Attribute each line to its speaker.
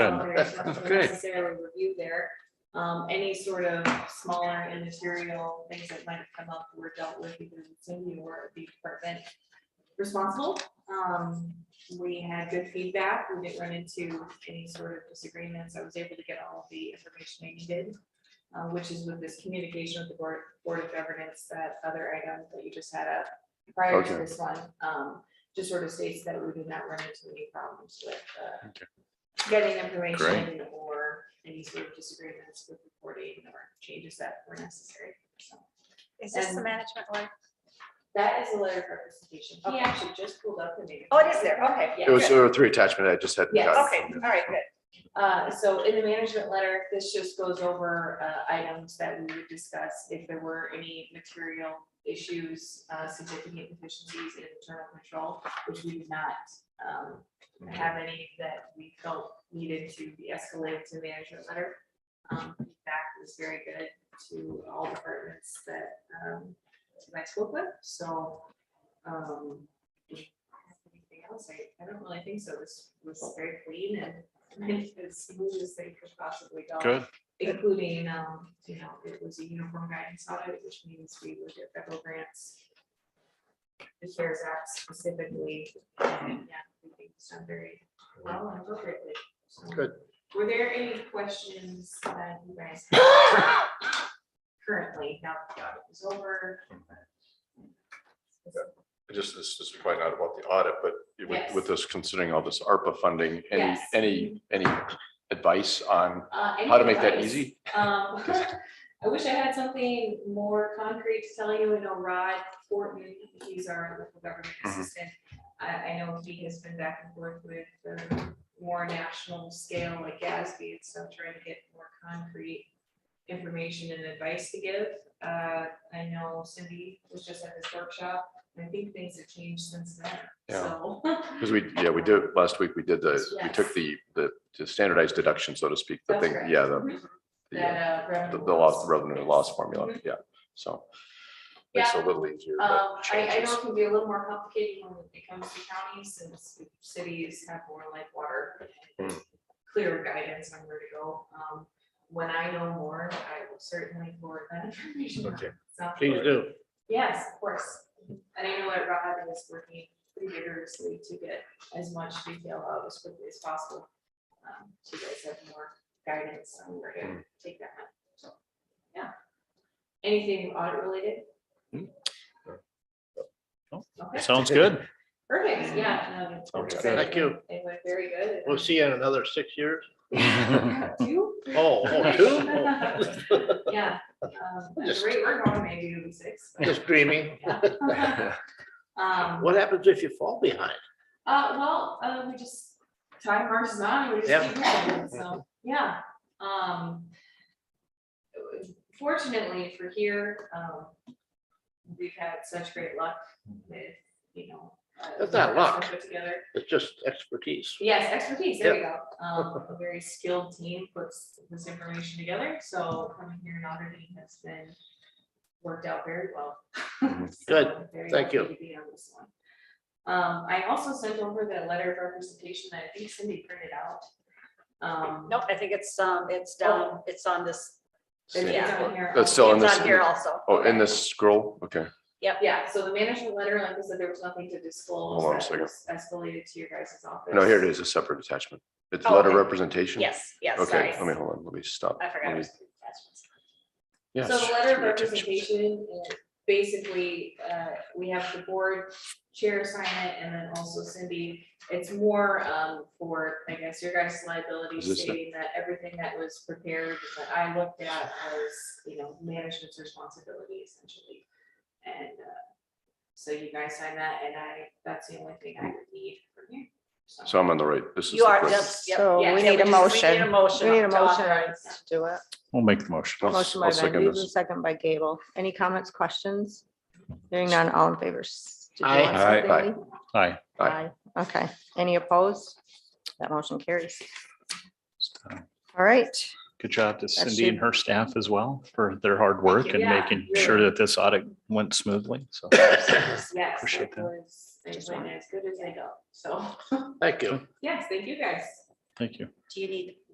Speaker 1: there's nothing
Speaker 2: Okay.
Speaker 1: necessarily reviewed there. Um, any sort of smaller immaterial things that might have come up were dealt with either with Cindy or the department responsible. Um, we had good feedback. We didn't run into any sort of disagreements. I was able to get all of the information I needed. uh, which is with this communication with the board, board of governance, that other item that you just had up prior to
Speaker 2: Okay.
Speaker 1: this one. Um, just sort of states that we did not run into any problems with, uh,
Speaker 2: Okay.
Speaker 1: getting information or any sort of disagreements with reporting or changes that were necessary. So
Speaker 3: Is this the
Speaker 1: And-
Speaker 3: management one?
Speaker 1: That is a letter of representation. He
Speaker 3: Okay.
Speaker 1: actually just pulled up the name.
Speaker 3: Oh, it is there. Okay.
Speaker 1: Yeah.
Speaker 2: It was, there were three attachment, I just hadn't
Speaker 1: Yes.
Speaker 2: gotten.
Speaker 3: Okay, all right, good.
Speaker 1: Uh, so in the management letter, this just goes over, uh, items that we would discuss if there were any material issues, uh, significant deficiencies in internal control, which we did not, um, have any that we felt needed to be escalated to management letter. Um, feedback was very good to all departments that, um, that I spoke with, so, um, anything else, I, I don't really think so, this was very clean and as smooth as they could possibly go.
Speaker 2: Good,
Speaker 1: Including, um, you know, it was a uniform guidance audit, which means we would get federal grants. The CARES Act specifically, and yeah, we think it's done very well and appropriately. So,
Speaker 2: Good.
Speaker 1: Were there any questions that you guys? have Currently, now that the audit is over.
Speaker 2: just, this is quite not about the audit, but with,
Speaker 1: Yes.
Speaker 2: with this, considering all this ARPA funding, any,
Speaker 1: Yes.
Speaker 2: any, any advice on
Speaker 1: Uh, any
Speaker 2: how to make that
Speaker 1: advice?
Speaker 2: easy?
Speaker 1: Um, I wish I had something more concrete to tell you. I know Rod Fortin, he's our local government
Speaker 2: Mhm.
Speaker 1: assistant. I, I know he has been back and forth with the more national scale like Gatsby and stuff, trying to get more concrete information and advice to give. Uh, I know Cindy was just at this workshop. and I think things have changed since then,
Speaker 2: Yeah.
Speaker 1: so.
Speaker 2: Because we, yeah, we did, last week, we did the, we took
Speaker 1: Yes.
Speaker 2: the, the the standardized deduction, so to speak, the
Speaker 1: That's
Speaker 2: thing,
Speaker 1: correct.
Speaker 2: yeah, the,
Speaker 1: Mhm.
Speaker 2: the, uh,
Speaker 1: That, uh,
Speaker 2: the
Speaker 1: revenue
Speaker 2: the loss,
Speaker 1: loss.
Speaker 2: revenue loss formula, yeah, so. Makes it a little easier, but
Speaker 1: Um, I, I know
Speaker 2: changes.
Speaker 1: it can be a little more complicated when it comes to counties, since cities have more like water. and
Speaker 2: Mm.
Speaker 1: Clearer guidance on where to go. Um, when I know more, I will certainly forward that information. on.
Speaker 2: Okay.
Speaker 1: So-
Speaker 4: Please do.
Speaker 1: Yes, of course. And I know that Rob is working pretty vigorously to get as much detail out as quickly as possible. Um, So you guys have more guidance on where
Speaker 4: Mm.
Speaker 1: to take that, up. so, yeah. Anything audit related?
Speaker 2: Hmm.
Speaker 1: Okay,
Speaker 4: Sounds good.
Speaker 1: perfect, yeah. no, it's
Speaker 2: Sounds good.
Speaker 1: exciting.
Speaker 4: Thank you.
Speaker 1: It went very good.
Speaker 4: We'll see you in another six years.
Speaker 1: You?
Speaker 4: Oh, oh, two?
Speaker 1: Yeah. um,
Speaker 4: Just-
Speaker 1: Great work on maybe doing six. but-
Speaker 4: Just dreaming.
Speaker 1: Yeah. Um,
Speaker 4: What happens if you fall behind?
Speaker 1: Uh, well, uh, we just, time marches on, and we just keep going, so, yeah, um. Fortunately for here, um, we've had such great luck with, you know. uh,
Speaker 4: That's not luck.
Speaker 1: Put together,
Speaker 4: It's just expertise.
Speaker 1: yes, expertise, there you go, um, a very skilled team puts this information together, so coming here and auditing has been worked out very well.
Speaker 2: Mhm.
Speaker 1: So
Speaker 4: Good.
Speaker 1: I'm very
Speaker 4: Thank
Speaker 1: happy
Speaker 4: you.
Speaker 1: to be on this one. Um, I also sent over the letter of representation that I think Cindy printed out. Um,
Speaker 5: Nope, I think it's, um, it's down, it's on this,
Speaker 1: it's- it's
Speaker 5: Yeah.
Speaker 1: on here.
Speaker 2: That's
Speaker 1: Um,
Speaker 2: still in
Speaker 5: it's
Speaker 2: this,
Speaker 5: on here also.
Speaker 2: oh, in this scroll, okay,
Speaker 1: Yeah, so the management letter, like I said, there was nothing to disclose.
Speaker 2: Hold on a
Speaker 1: that
Speaker 2: second.
Speaker 1: was Escalated to your guys' office.
Speaker 2: no, here it is, a separate attachment, it's
Speaker 5: Oh,
Speaker 2: letter
Speaker 5: okay.
Speaker 2: representation?
Speaker 5: Yes, yes, sorry.
Speaker 2: Okay, let me, hold on, let me stop.
Speaker 5: I
Speaker 2: Let
Speaker 5: forgot. it
Speaker 2: me-
Speaker 5: was two attachments.
Speaker 2: yes,
Speaker 1: So the letter of
Speaker 2: three attachments.
Speaker 1: representation, uh, basically, uh, we have the board chair sign it and then also Cindy. It's more, um, for, I guess, your guys' liability
Speaker 2: Is this the-
Speaker 1: stating that everything that was prepared that I looked at was, you know, management's responsibility essentially. And, uh, so you guys sign that and I, that's the only thing I would need from you.
Speaker 2: So I'm on the right, this is.
Speaker 5: You
Speaker 2: the
Speaker 5: are,
Speaker 2: correct-
Speaker 5: yep, yep.
Speaker 6: So
Speaker 1: Yeah,
Speaker 6: we
Speaker 5: Yeah,
Speaker 6: need a
Speaker 5: we just- We need a
Speaker 6: motion.
Speaker 5: motion.
Speaker 6: We need a
Speaker 5: to
Speaker 6: motion
Speaker 5: authorize that.
Speaker 6: to do it.
Speaker 7: We'll make the motion.
Speaker 2: I'll-
Speaker 6: Motion
Speaker 2: I'll
Speaker 6: by Van
Speaker 2: second
Speaker 6: Duzen,
Speaker 2: this.
Speaker 6: second by Gable. Any comments, questions? Hearing none, all in favor. s- did you
Speaker 4: Aye.
Speaker 6: want
Speaker 2: Aye.
Speaker 6: something,
Speaker 2: Aye.
Speaker 6: Lee?
Speaker 7: Aye.
Speaker 2: Aye.
Speaker 6: Aye. Okay, any opposed? That motion carries.
Speaker 7: So,
Speaker 6: All right,
Speaker 7: Good job to
Speaker 6: That
Speaker 7: Cindy and her staff as well for their hard work and
Speaker 1: Yeah,
Speaker 7: making
Speaker 1: really.
Speaker 7: sure that this audit went smoothly. So
Speaker 1: Yes,
Speaker 7: Appreciate
Speaker 1: that
Speaker 7: that.
Speaker 1: was, they went as good as they go. So,
Speaker 4: Thank you.
Speaker 1: yes, thank you guys.
Speaker 7: thank you.
Speaker 5: Do you need